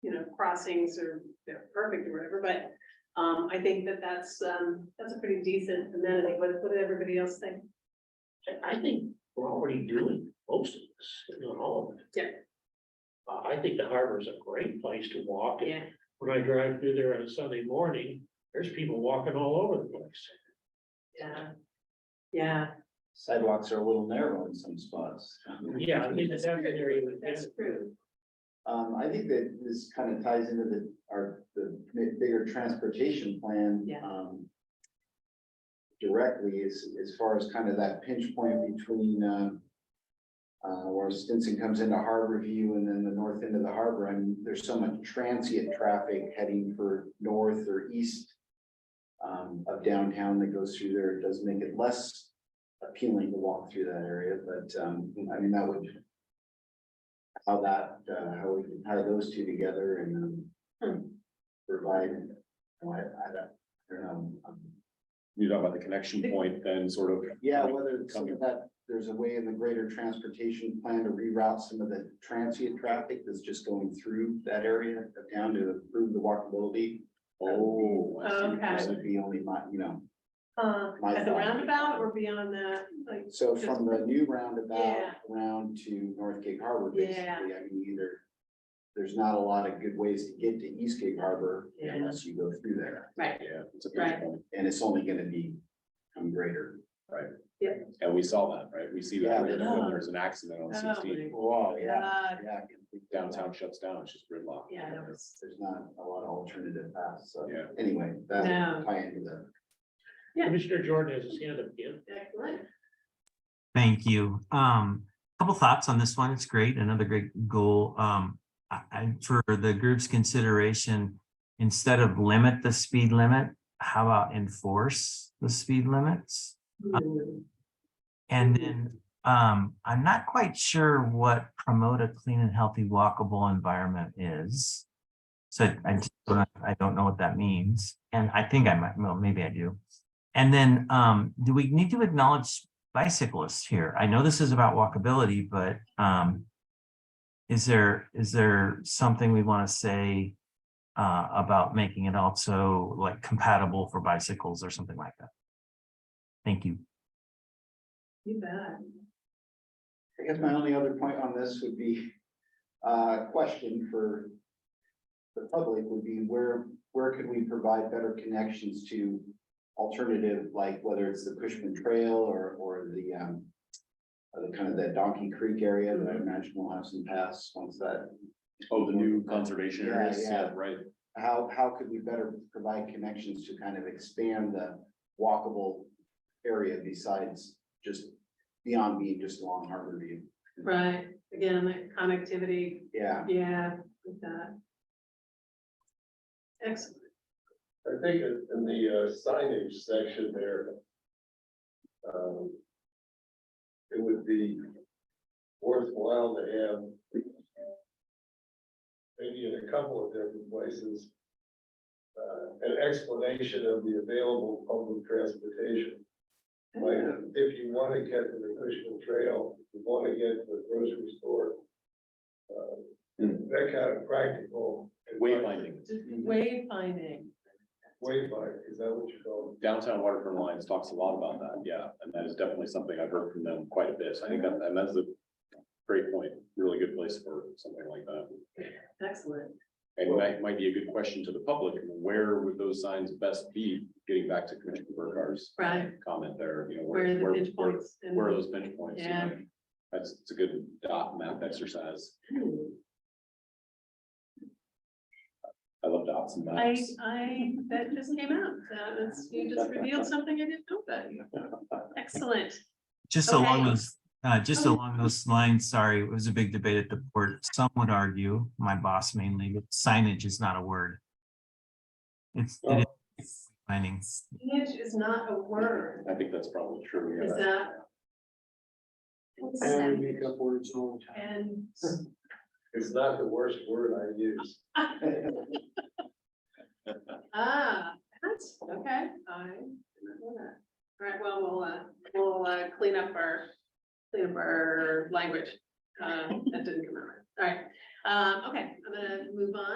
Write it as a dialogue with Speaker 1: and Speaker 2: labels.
Speaker 1: you know, crossings or they're perfect or whatever, but. Um, I think that that's, um, that's a pretty decent amenity, what, what did everybody else think?
Speaker 2: I, I think we're already doing most of this, if not all of it.
Speaker 1: Yeah.
Speaker 2: Uh, I think the harbor is a great place to walk. and When I drive through there on a Sunday morning, there's people walking all over the place.
Speaker 1: Yeah. Yeah,
Speaker 3: Sidewalks are a little narrow in some spots.
Speaker 2: Yeah, I mean, that's an area that-
Speaker 1: that's true,
Speaker 3: Um, I think that this kind of ties into the, our, the mi- bigger transportation plan.
Speaker 1: Yeah.
Speaker 3: um, Directly is, as far as kind of that pinch point between, um. Uh, where Stinson comes into Harbor View and then the north end of the harbor, and there's so much transient traffic heading for north or east. Um, of downtown that goes through there, it does make it less appealing to walk through that area, but, um, I mean, that would how that, uh, how we can tie those two together and
Speaker 1: Hmm.
Speaker 3: um, provide, you know, I, I don't, I don't know. um,
Speaker 4: You're talking about the connection point then sort of.
Speaker 3: Yeah, whether some of that, there's a way in the greater transportation plan to reroute some of the transient traffic that's just going through that area of town to improve the walkability.
Speaker 4: Oh, I see.
Speaker 3: I think That
Speaker 1: Okay.
Speaker 3: would be only my, you know,
Speaker 1: uh,
Speaker 3: My
Speaker 1: at the
Speaker 3: thought.
Speaker 1: roundabout or beyond that, like,
Speaker 3: so from the new roundabout
Speaker 1: Yeah.
Speaker 3: around to North Cape Harbor, basically,
Speaker 1: Yeah.
Speaker 3: I mean, either. There's not a lot of good ways to get to East Cape Harbor
Speaker 1: Yeah.
Speaker 3: unless you go through there.
Speaker 1: right,
Speaker 4: Yeah, it's a
Speaker 1: Right.
Speaker 4: pinch point.
Speaker 3: and it's only gonna be um greater.
Speaker 4: And we saw that, right? We see that
Speaker 3: Yeah.
Speaker 4: when
Speaker 1: Yeah.
Speaker 4: there's an accident on
Speaker 1: Oh,
Speaker 4: sixteen,
Speaker 3: Wow,
Speaker 1: uh,
Speaker 3: Yeah, I can think that up.
Speaker 4: downtown shuts down, it's just gridlock.
Speaker 1: yeah, that was,
Speaker 3: There's not a lot of alternative paths, so
Speaker 4: Yeah.
Speaker 3: anyway,
Speaker 1: No.
Speaker 3: that tie into the.
Speaker 1: Yeah.
Speaker 2: Commissioner Jordan has his hand up again.
Speaker 1: excellent.
Speaker 5: Thank you. Um, couple thoughts on this one. It's great, another great goal. Um, I, I, for the group's consideration, instead of limit the speed limit, how about enforce the speed limits?
Speaker 1: Hmm.
Speaker 5: And then, um, I'm not quite sure what promote a clean and healthy walkable environment is. So I just don't, I don't know what that means, and I think I might, well, maybe I do. And then, um, do we need to acknowledge bicyclists here? I know this is about walkability, but, um. Is there, is there something we want to say? Uh, about making it also like compatible for bicycles or something like that? Thank you.
Speaker 1: You bet.
Speaker 3: I guess my only other point on this would be, uh, question for. The public would be where, where could we provide better connections to alternative, like whether it's the Cushman Trail or, or the, um. uh, The kind of that Donkey Creek area that I imagine will have some paths once that
Speaker 4: Oh, the new conservation
Speaker 3: Yeah,
Speaker 4: areas,
Speaker 3: yeah.
Speaker 4: yeah, right.
Speaker 3: how, how could we better provide connections to kind of expand the walkable area besides just beyond being just along Harbor View?
Speaker 1: Right, again, that connectivity,
Speaker 3: Yeah,
Speaker 1: yeah, with that. Excellent,
Speaker 6: I think in in the uh, signage section there. um, It would be worthwhile to have. Maybe in a couple of different places. uh, An explanation of the available public transportation. Like, if you want to get to the Cushman Trail, you want to get to the grocery store. uh, That kind of practical.
Speaker 4: Wayfinding,
Speaker 1: Just wayfinding,
Speaker 6: Wayfinder, is that what you call it?
Speaker 4: downtown waterfront lines talks a lot about that, yeah, and that is definitely something I've heard from them quite a bit. So I think that, and that's a great point, really good place for something like that.
Speaker 1: excellent,
Speaker 4: And that might be a good question to the public, where would those signs best be, getting back to Commissioner Burkhart's
Speaker 1: right,
Speaker 4: comment there, you know,
Speaker 1: where
Speaker 4: where,
Speaker 1: are the
Speaker 4: where,
Speaker 1: pinch
Speaker 4: where,
Speaker 1: points? and-
Speaker 4: where are those bench points? you know?
Speaker 1: Yeah.
Speaker 4: That's, it's a good dot map exercise, I love dots and
Speaker 1: I,
Speaker 4: maps.
Speaker 1: I, that just came out, that is, you just revealed something I didn't know about you. Excellent,
Speaker 5: Just
Speaker 1: Okay.
Speaker 5: along those, uh, just
Speaker 1: Okay.
Speaker 5: along those lines, sorry, it was a big debate at the port. Some would argue, my boss mainly, that signage is not a word. It's, it is planning.
Speaker 1: signage is not a word,
Speaker 4: I think that's probably true. yeah.
Speaker 1: is that?
Speaker 6: I make up words all the time.
Speaker 1: And,
Speaker 6: It's not the worst word I use.
Speaker 1: ah, that's, okay, I didn't know that. All right, well, we'll, uh, we'll, uh, clean up our, clean up our language, uh, that didn't come out right, all right, um, okay, I'm gonna move on.